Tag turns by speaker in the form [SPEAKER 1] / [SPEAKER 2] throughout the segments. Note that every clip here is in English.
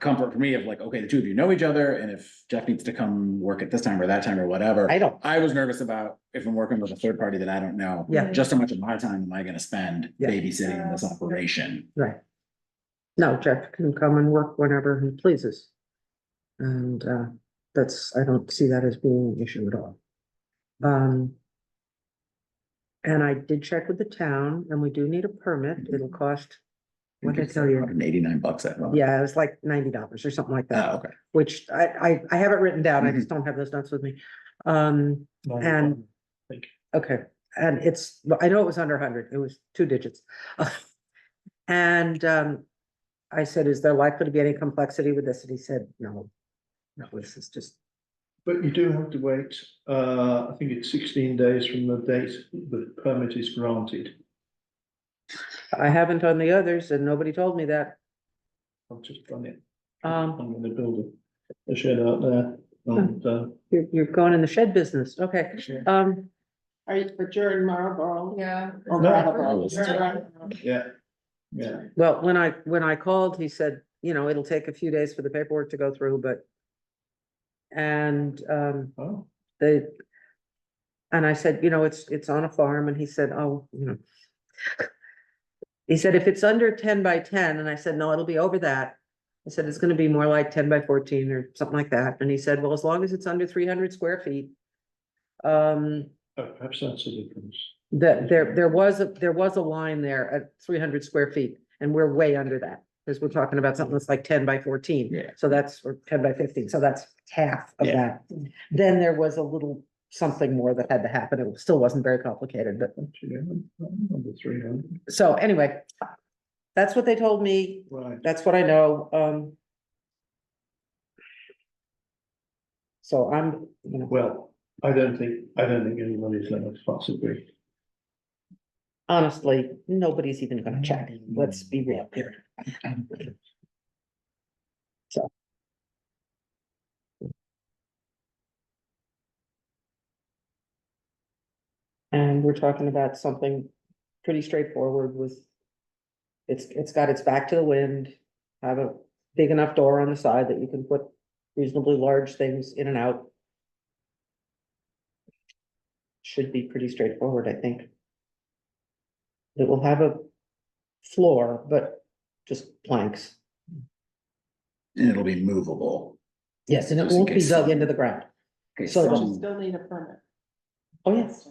[SPEAKER 1] comfort for me of like, okay, the two of you know each other, and if Jeff needs to come work at this time or that time or whatever.
[SPEAKER 2] I don't,
[SPEAKER 1] I was nervous about if I'm working with a third party that I don't know,
[SPEAKER 2] Yeah.
[SPEAKER 1] just how much of my time am I gonna spend
[SPEAKER 2] Yeah.
[SPEAKER 1] babysitting this operation?
[SPEAKER 2] right. No, Jeff can come and work whenever he pleases. And uh, that's, I don't see that as being an issue at all. Um. And I did check with the town and we do need a permit. It'll cost, what did I tell you?
[SPEAKER 1] Hundred eighty-nine bucks at most.
[SPEAKER 2] Yeah, it was like ninety dollars or something like
[SPEAKER 1] Oh,
[SPEAKER 2] that,
[SPEAKER 1] okay.
[SPEAKER 2] which I, I, I have it written down. I just don't have those notes with me. Um, and.
[SPEAKER 3] Thank
[SPEAKER 2] Okay, and it's, well, I know it was under hundred, it was two digits. And, um, I said, is there likely to be any complexity with this? And he said, no. No, this is just,
[SPEAKER 3] But you do have to wait, uh, I think it's sixteen days from the date the permit is granted.
[SPEAKER 2] I haven't on the others and nobody told me that.
[SPEAKER 3] I've just done it.
[SPEAKER 2] Um,
[SPEAKER 3] I'm gonna build a, a shed out there and, uh,
[SPEAKER 2] you're, you're going in the shed business, okay, um.
[SPEAKER 4] Are you, but you're in Marlboro?
[SPEAKER 5] Yeah.
[SPEAKER 4] Or
[SPEAKER 3] No.
[SPEAKER 4] Marlboro,
[SPEAKER 1] Marlboro's-
[SPEAKER 4] you're in Marlboro.
[SPEAKER 3] yeah, yeah.
[SPEAKER 2] Well, when I, when I called, he said, you know, it'll take a few days for the paperwork to go through, but. And, um,
[SPEAKER 3] Oh,
[SPEAKER 2] they. And I said, you know, it's, it's on a farm, and he said, oh, you know. He said, if it's under ten by ten, and I said, no, it'll be over that. I said, it's gonna be more like ten by fourteen or something like that, and he said, well, as long as it's under three hundred square feet. Um,
[SPEAKER 3] oh, perhaps that's the difference.
[SPEAKER 2] that there, there was, a there was a line there at three hundred square feet, and we're way under that. Because we're talking about something that's like ten by fourteen.
[SPEAKER 1] Yeah.
[SPEAKER 2] So that's, or ten by fifteen, so that's half of
[SPEAKER 1] Yeah.
[SPEAKER 2] that. Then there was a little something more that had to happen. It still wasn't very complicated, but,
[SPEAKER 3] Actually, I'm- I'm Number three hundred,
[SPEAKER 2] so anyway. That's what they told me.
[SPEAKER 3] right.
[SPEAKER 2] That's what I know, um. So I'm, you know,
[SPEAKER 3] Well, I don't think, I don't think anybody's gonna possibly.
[SPEAKER 2] honestly, nobody's even gonna check. Let's be real here. And we're talking about something pretty straightforward with. It's, it's got its back to the wind, have a big enough door on the side that you can put reasonably large things in and out. Should be pretty straightforward, I think. It will have a floor, but just planks.
[SPEAKER 1] And it'll be movable.
[SPEAKER 2] Yes, and it
[SPEAKER 1] Just in
[SPEAKER 2] won't be
[SPEAKER 1] case
[SPEAKER 2] dug
[SPEAKER 1] some-
[SPEAKER 2] into the ground.
[SPEAKER 1] Okay,
[SPEAKER 2] So
[SPEAKER 4] But
[SPEAKER 2] the-
[SPEAKER 4] you
[SPEAKER 1] some,
[SPEAKER 4] still need a permit.
[SPEAKER 2] Oh, yes.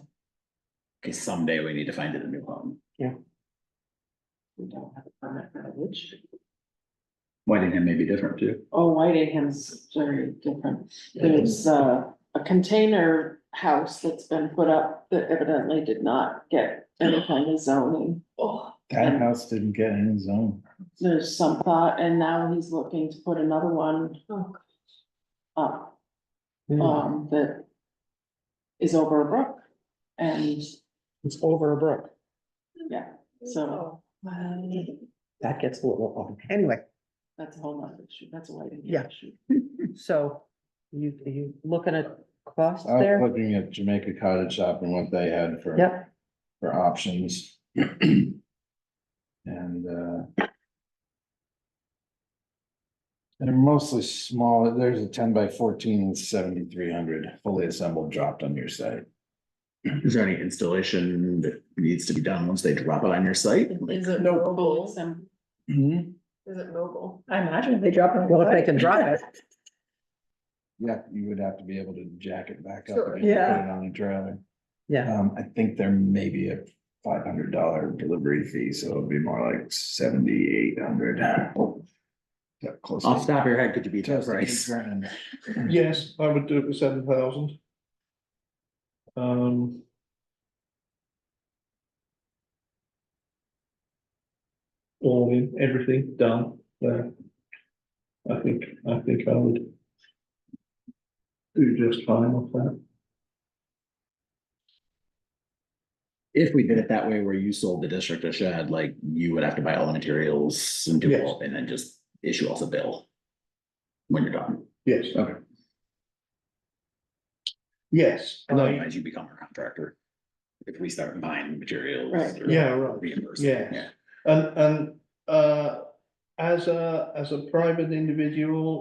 [SPEAKER 1] okay, someday we need to find it a new home.
[SPEAKER 4] We don't have a permit for which,
[SPEAKER 1] Whitingham may be different too.
[SPEAKER 4] oh, Whitingham's very different. There's uh, a container house that's been put up that evidently did not get any kind of zoning.
[SPEAKER 6] That house didn't get any zone.
[SPEAKER 4] There's some thought, and now he's looking to put another one up.
[SPEAKER 2] Mm,
[SPEAKER 4] um, that is over a brook. And,
[SPEAKER 2] It's over a brook.
[SPEAKER 4] yeah, so
[SPEAKER 2] That gets a little long. Anyway,
[SPEAKER 4] that's a whole nother issue, that's a lighting
[SPEAKER 2] Yeah.
[SPEAKER 4] issue.
[SPEAKER 2] so you, you looking at costs
[SPEAKER 1] Uh,
[SPEAKER 6] I was
[SPEAKER 2] there?
[SPEAKER 6] looking at Jamaica Cottage Shop and what they had for,
[SPEAKER 2] Yep.
[SPEAKER 6] for options. And, uh, they're mostly small. There's a ten by fourteen with seventy-three hundred fully assembled dropped on your site.
[SPEAKER 1] Is there any installation that needs to be done once they drop it on your site? Like,
[SPEAKER 5] Is it
[SPEAKER 4] No
[SPEAKER 5] mobile?
[SPEAKER 4] Some-
[SPEAKER 6] Mm-hmm.
[SPEAKER 5] Is it mobile? I imagine if they drop it.
[SPEAKER 2] Well, if they can drive it.
[SPEAKER 6] Yeah, you would have to be able to jack it back up.
[SPEAKER 5] Sure,
[SPEAKER 6] and put it
[SPEAKER 5] yeah.
[SPEAKER 6] On a trailer.
[SPEAKER 2] Yeah,
[SPEAKER 6] Um, I think there may be a five hundred dollar delivery fee, so it'd be more like seventy-eight hundred. Close.
[SPEAKER 1] Off the top of your head, could you beat that
[SPEAKER 6] Just a
[SPEAKER 1] price?
[SPEAKER 6] grand.
[SPEAKER 3] Yes, I would do it for seven thousand. Um. All in, everything done, so. I think, I think I would. Do just fine with that.
[SPEAKER 1] If we did it that way where you sold the district a shed, like you would have to buy all the materials and do
[SPEAKER 3] Yes.
[SPEAKER 1] all, and then just issue us a bill. When you're done,
[SPEAKER 3] Yes.
[SPEAKER 1] Okay.
[SPEAKER 3] Yes,
[SPEAKER 1] And
[SPEAKER 3] I,
[SPEAKER 1] otherwise you become our contractor. If we start buying materials.
[SPEAKER 4] Right.
[SPEAKER 1] or
[SPEAKER 3] Yeah, right.
[SPEAKER 1] reimbursing,
[SPEAKER 3] Yeah. and, and, uh, as a, as a private individual